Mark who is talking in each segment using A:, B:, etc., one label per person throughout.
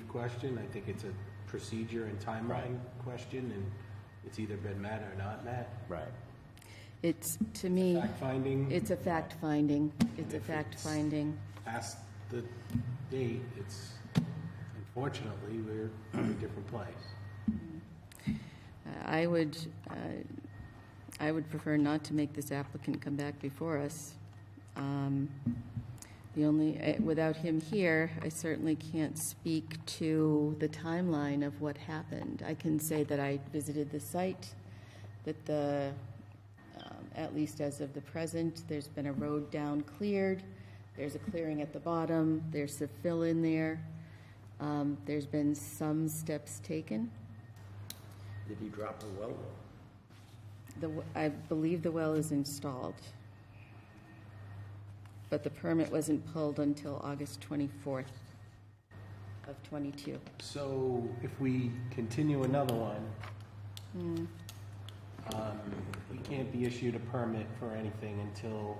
A: question. I think it's a procedure and timeline question, and it's either been met or not met.
B: Right.
C: It's, to me,
A: Fact finding,
C: it's a fact finding. It's a
A: If
C: fact
A: it's-
C: finding.
A: past the date, it's unfortunately, we're in a different place.
C: I would, uh, I would prefer not to make this applicant come back before us. Um, The only, eh, without him here, I certainly can't speak to the timeline of what happened. I can say that I visited the site, that the, um, at least as of the present, there's been a road down cleared, there's a clearing at the bottom, there's a fill in there, Um, there's been some steps taken.
B: Did he drop the well?
C: The, w- I believe the well is installed. But the permit wasn't pulled until August 24th of '22.
A: So if we continue another one, um, we can't be issued a permit for anything until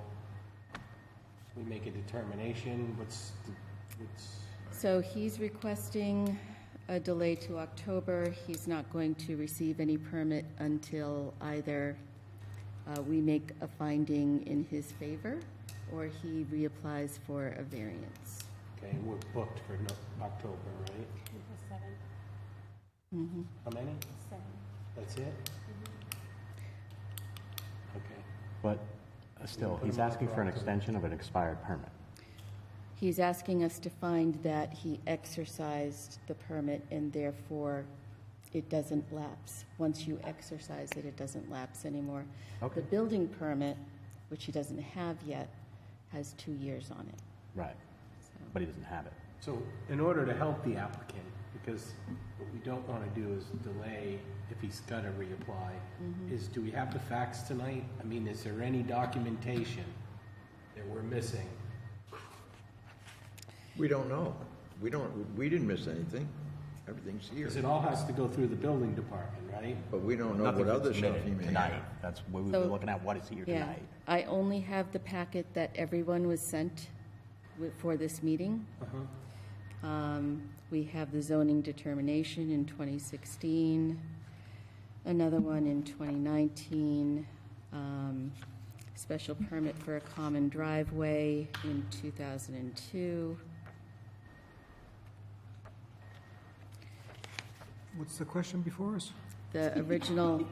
A: we make a determination. What's, the- what's,
C: So he's requesting a delay to October. He's not going to receive any permit until either uh, we make a finding in his favor or he reapplies for a variance.
A: okay, we're booked for no- October, right?
D: Seven,
A: How many?
D: seven.
A: That's it? Okay.
E: But uh, still, he's asking for an extension of an expired permit.
C: He's asking us to find that he exercised the permit and therefore it doesn't lapse. Once you exercise it, it doesn't lapse anymore.
E: Okay.
C: The building permit, which he doesn't have yet, has two years on it.
E: Right. But he doesn't have it.
A: So in order to help the applicant, because what we don't want to do is delay if he's got to reapply, is do we have the facts tonight? I mean, is there any documentation that we're missing?
F: We don't know. We don't, we didn't miss anything. Everything's here.
A: Because it all has to go through the building department, right?
F: But we don't know what
E: Nothing's
F: other stuff
E: submitted
F: he may
E: Tonight,
F: have.
E: that's what we
C: So-
E: were looking at, what is here
C: Yeah,
E: tonight.
C: I only have the packet that everyone was sent wi- for this meeting.
E: Uh-huh.
C: Um, We have the zoning determination in 2016, another one in 2019, um, special permit for a common driveway in 2002.
G: What's the question before us?
C: The original.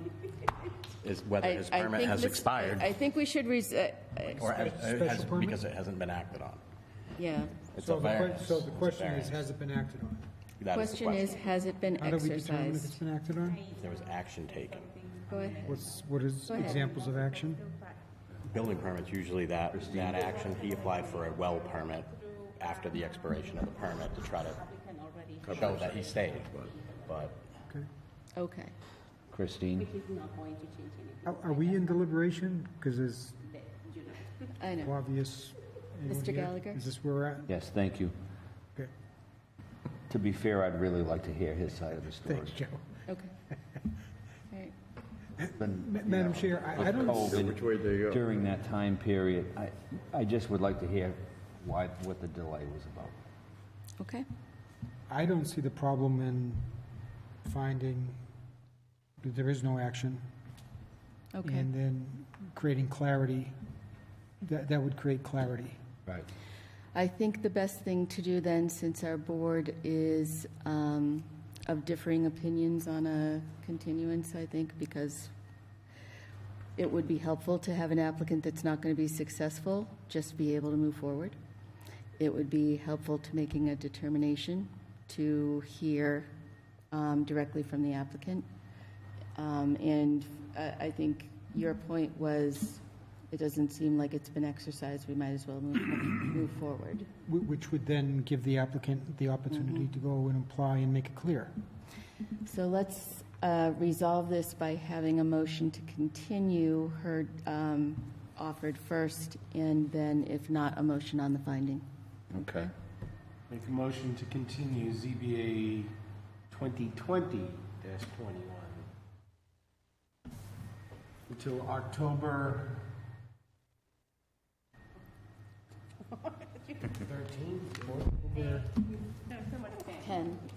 E: Is whether
C: I-
E: his
C: I
E: permit
C: think
E: has
C: this- I
E: expired
C: think we should, res- uh, uh,
E: or has-
G: Special
E: has-
G: permit?
E: because it hasn't been acted on.
C: yeah.
E: It's a
G: So the que-
E: variance.
G: So
E: It's
G: the
E: a
G: question is,
E: variance.
G: has it been acted on?
E: That is the
C: Question is, has it been
G: How do we determine if it's
C: exercised?
G: been acted on?
E: If There was action taken.
C: Go ahead.
G: What's, what is
C: Go ahead.
G: examples of action?
E: Building permits, usually that, that action, he applied for a well permit after the expiration of the permit to try to show that he stayed. But
G: Okay.
C: Okay.
B: Christine?
G: Are, are we in deliberation? Because there's
C: I know.
G: obvious. anyone
C: Mr.
G: here?
C: Gallagher?
G: Is this where we're at?
B: Yes, thank you.
G: Okay.
B: To be fair, I'd really like to hear his side of the story.
G: Thanks, Joe.
C: Okay. Right.
B: Been,
G: Ma-
B: you
G: Madam
B: know,
G: Chair, I- I
B: with
G: don't
B: COVID
G: see-
F: Which way they go.
B: During that time period, I, I just would like to hear why, what the delay was about.
C: Okay.
G: I don't see the problem in finding that there is no action.
C: Okay.
G: And then creating clarity. That, that would create clarity.
B: Right.
C: I think the best thing to do then, since our board is um, of differing opinions on a continuance, I think, because it would be helpful to have an applicant that's not going to be successful just be able to move forward. It would be helpful to making a determination to hear um, directly from the applicant. Um, And I I think your point was, it doesn't seem like it's been exercised, we might as well move move forward.
G: Wh- Which would then give the applicant the opportunity
C: Mm-hmm.
G: to go and apply and make it clear.
C: So let's uh, resolve this by having a motion to continue her um, offered first, and then if not, a motion on the finding.
B: Okay.
A: Make a motion to continue ZBA 2020-21 until October 13th,
C: Ken?